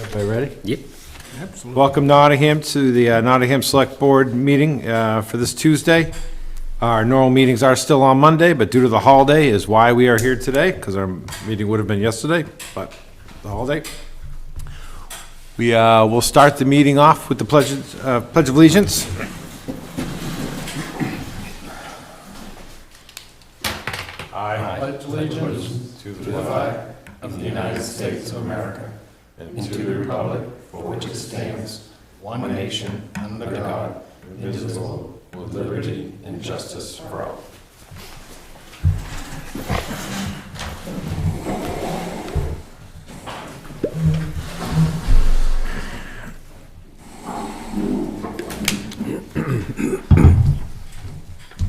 Everybody ready? Yep. Welcome Nottingham to the uh, Nottingham Select Board meeting uh, for this Tuesday. Our normal meetings are still on Monday, but due to the holiday is why we are here today, because our meeting would have been yesterday, but the holiday. We uh, will start the meeting off with the pledge uh, Pledge of Allegiance.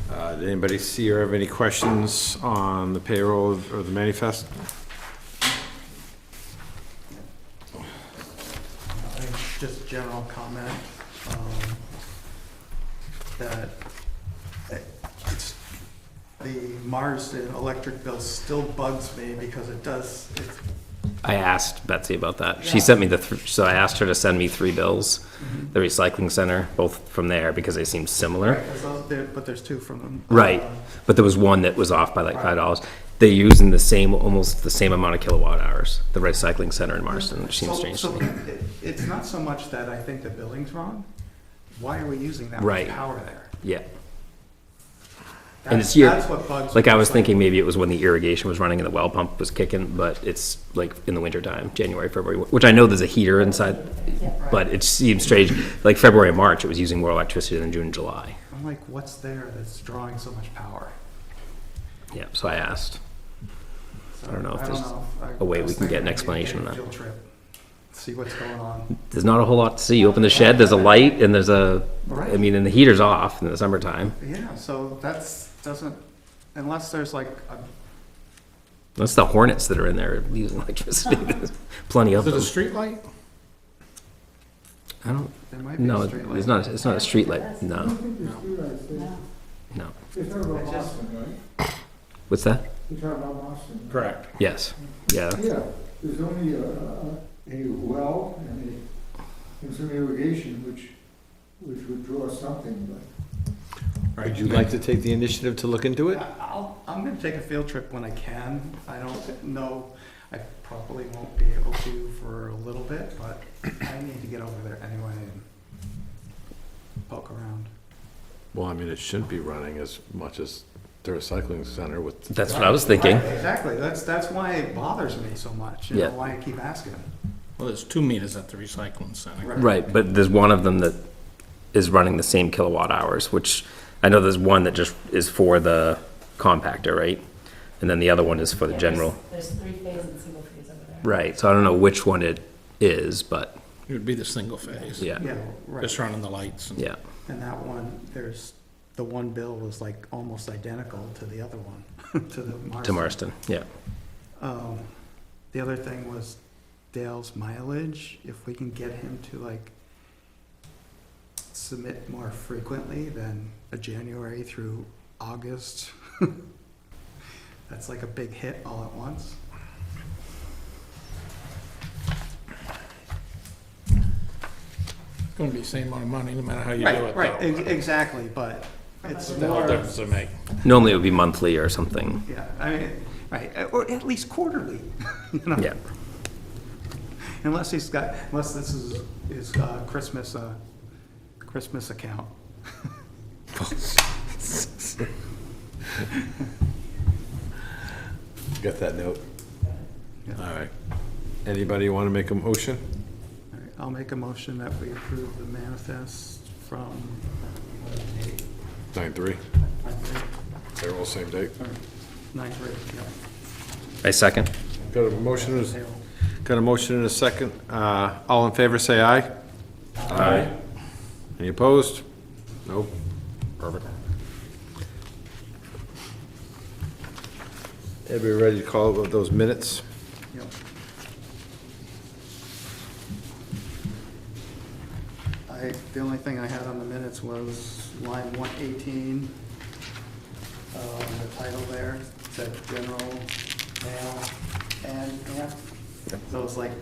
Uh, Did anybody see or have any questions on the payroll or the manifest? Just general comment, um, that it- it's, the Marsden electric bill still bugs me because it does, it's, I asked Betsy about that. She sent me the, thr- so I asked her to send me three bills, the recycling center, both from there because they seemed similar. it's out there, but there's two from them. Um, Right, but there was one that was off by like five dollars. They're using the same, almost the same amount of kilowatt hours, the recycling center in Marston, which seems So- strange to so me. it- It's not so much that I think the billing's wrong, why are we using that much Right. power there? Yeah, And That's- it's year- That's what bugs me. like I was It's thinking maybe it was when the irrigation was running and the well pump was kicking, but it's like in the winter time, January, February, which I know there's a heater inside, but it seems strange, like February and March, it was using more electricity than June and July. I'm like, what's there that's drawing so much power? Yeah, so I asked. So, I don't know if there's know if I- a way I was we can get an thinking maybe explanation a on that. Field trip, see what's going on. There's not a whole lot to see. You open the shed, there's a light, and there's a, I Right. mean, and the heater's off in the summertime. Yeah, so that's, doesn't, unless there's like, a- That's the hornets that are in there using electricity. There's Plenty of Is it a them. street light? I don't, there might be no, a street it's light. not, it's not a street light, no. No. I just- What's that? You're talking about Boston? Correct. Yes, yeah, Yeah, there's only a, a well and a, and some irrigation, which, which would draw something, but. Would you like to take the initiative to look into it? I'll, I'm gonna take a field trip when I can. I don't know, I probably won't be able to for a little bit, but I need to get over there anyway and poke around. Well, I mean, it shouldn't be running as much as the recycling center with, that's what I was thinking. Right, Exactly, that's, that's why it bothers me so much, you Yeah. know, why I keep asking. Well, there's two meters at the recycling center. Right, but there's one of them that is running the same kilowatt hours, which I know there's one that just is for the compactor, right? And then the other one is for the Yeah, general. There's there's three phase and single phase over there. Right, so I don't know which one it is, but It would be the single phase. yeah, Yeah, right. Just running the lights and yeah. And that one, there's, the one bill was like almost identical to the other one, to the Marston. To Marston, yeah. Um, the other thing was Dale's mileage, if we can get him to like submit more frequently than a January through August. That's like a big hit all at once. it's gonna be the same amount of money, no matter how you do Right, it. right, though. ex- exactly, but it's The whole more, difference to make. Normally it would be monthly or something, yeah, I mean, right, or at least quarterly, you know? yeah. Unless he's got, unless this is, is uh, Christmas, uh, Christmas account. got that note? Yeah. All right. Anybody want to make a motion? All right, I'll make a motion that we approve the manifest from, Nine three, I think, they're all same date. nine three, yeah. I second. Got a motion, is- payroll. got a motion and a second. Uh, All in favor, say aye. Aye. Any opposed? Nope. Perfect. Everybody ready to call those minutes? Yep. I, the only thing I had on the minutes was line one eighteen, um, the title there, said general, mail, and, and. So it's like